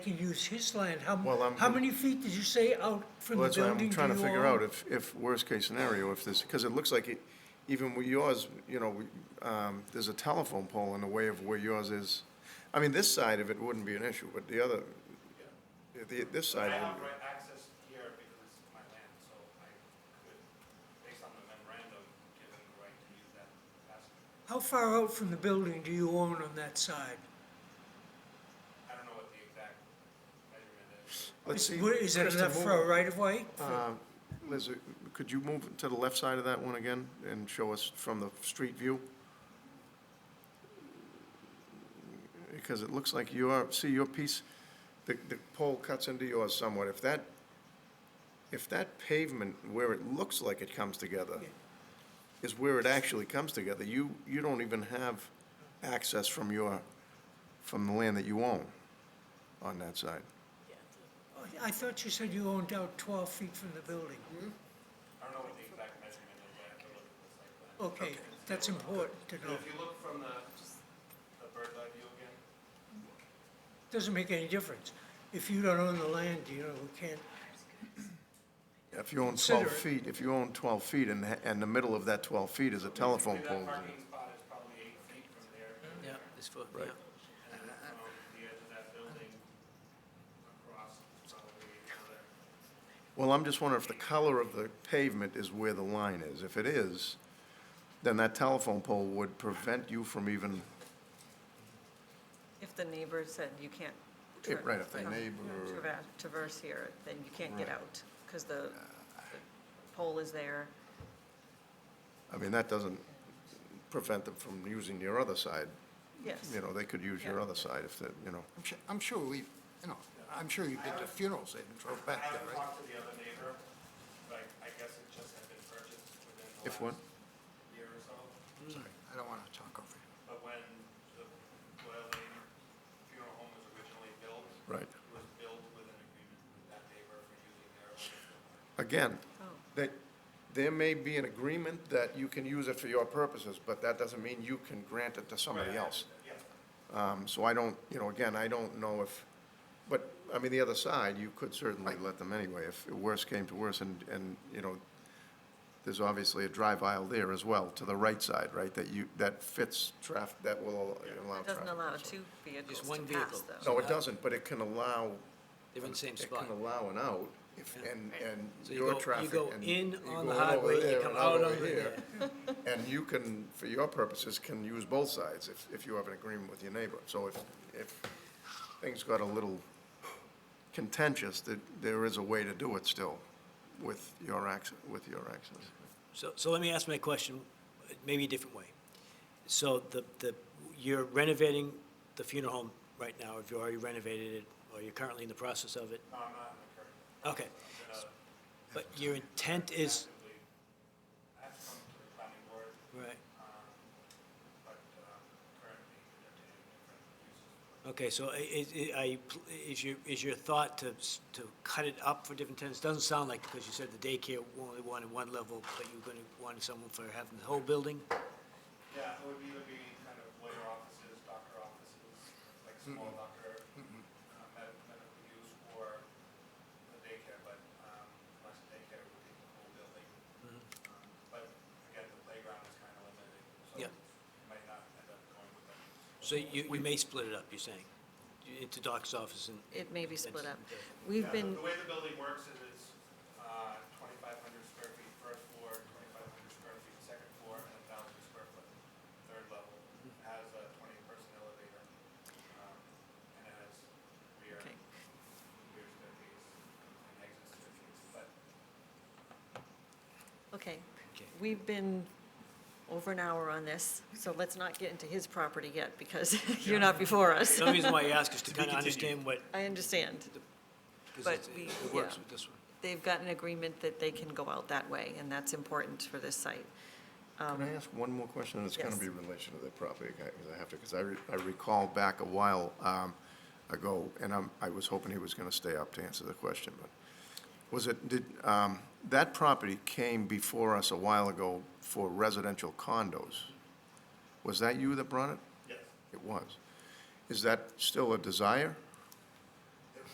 to use his land, how, Well, I'm- how many feet did you say out from Well, the that's what building? I'm do trying to you figure own? out, if, if, worst-case scenario, if this, because it looks like, it- even with yours, you know, we- um, there's a telephone pole in the way of where yours is. I mean, this side of it wouldn't be an issue, but the other, the- this I side, have wouldn't right access here because this is my land, so I could, based on the memorandum, give them the right to use that passage. How far out from the building do you own on that side? I don't know what the exact measurement is. be- let's Is- see. where- Is that Krista, enough move- for a right of way? uh, Liz, uh, could you move to the left side of that one again and show us from the street view? Because it looks like your, see your piece, the, the pole cuts into yours somewhat. If that, if that pavement where it looks like it comes together is where it actually comes together, you, you don't even have access from your, from the land that you own on that side. Oh, I thought you said you owned out twelve feet from the building. I don't know what the exact measurement is, I have to look at the site plan. Okay, that's important to And know. if you look from the, the bird's eye view again, Doesn't make any difference. If you don't own the land, you know, we can't, If you own 12 Consider feet, if you own 12 feet and, ha- and the middle of that 12 feet is a telephone maybe pole. that parking spot is probably eight feet from there, and Yeah, this foot, yeah. then from the edge of that building across, probably another. Well, I'm just wondering if the color of the pavement is where the line is. If it is, then that telephone pole would prevent you from even, If the neighbor said you can't. Yeah, tra- right, if the um, neighbor- traver- Traverse here, then you can't get out, because the the pole is there. I mean, that doesn't prevent them from using your other side. Yes. You know, they could use your Yeah. other side if, they you know. I'm sure, I'm sure we, you know, I'm sure you've been to funerals and drove I back there, haven't right? talked to the other neighbor, but I guess it just had been purchased within the If what? last year or so. Sorry, I don't want to talk over you. But when the Doyle Lane Funeral Home was originally built. Right. It was built with an agreement with that neighbor for using their own. Again, Oh. that, there may be an agreement that you can use it for your purposes, but that doesn't mean you can grant it to somebody else. Yes, Um, So I don't, you know, again, I don't know if, but, I mean, the other side, you could certainly let them anyway, if worse came to worse, and, and, you know, there's obviously a drive aisle there as well, to the right side, right, that you, that fits traffic, that will allow It traffic. doesn't allow so. two vehicles one to pass, vehicle. though. No, it doesn't, but it can allow, They're in the same it spot. can allow an out, if, Yeah. and, and So you your go- you traffic. go and in you on the go in over highway, you there come and out over And you can, for your purposes, can use both sides if, if you have an agreement with your neighbor. So if, if things got a little contentious, that there is a way to do it still with your access, with your access. So, so let me ask my question, uh, maybe a different way. So the, the, you're renovating the funeral home right now, if you already renovated it, or you're currently in the process of it? no, I'm not in the current, Okay. But your intent is, actively, I have to come to the planning board, right, but um, currently entertaining different uses. okay, so i- is, i- are you, pl- is your, is your thought to, s- to cut it up for different tenants? Doesn't sound like, because you said the daycare only wanted one level, but you're gonna want someone for having the whole building? Yeah, it would either be kind of lawyer offices, doctor offices, like small doctor, uh, med- medical use, or the daycare, but, um, unless the daycare would take the whole building. Um, But again, the playground is kind of limited, so Yeah. it might not end up going with them. So you, you may split it up, you're saying, into doc's office and. It may be split up. and- Yeah, We've the- been, The way the building works is it's, uh, twenty-five hundred square feet first floor, twenty-five hundred square feet second floor, and a thousand square foot third level. It Has a twenty-person elevator, um, and it has rear, Okay. rear staircase and exit staircase, but okay, Okay. we've been over an hour on this, so let's not get into his property yet, because you're not before us. The only reason why I ask is to be kind of continued. understand what, I understand. But because we- it it works yeah. with this one. They've got an agreement that they can go out that way, and that's important for this site. Can I ask one more question? And it's going to yes. be in relation to the property, because I have to, because I re- I recall back a while um, ago, and I'm- I was hoping he was going to stay up to answer the question, but was it, did, um, that property came before us a while ago for residential condos. Was that you that brought it? yes. It was. Is that still a desire?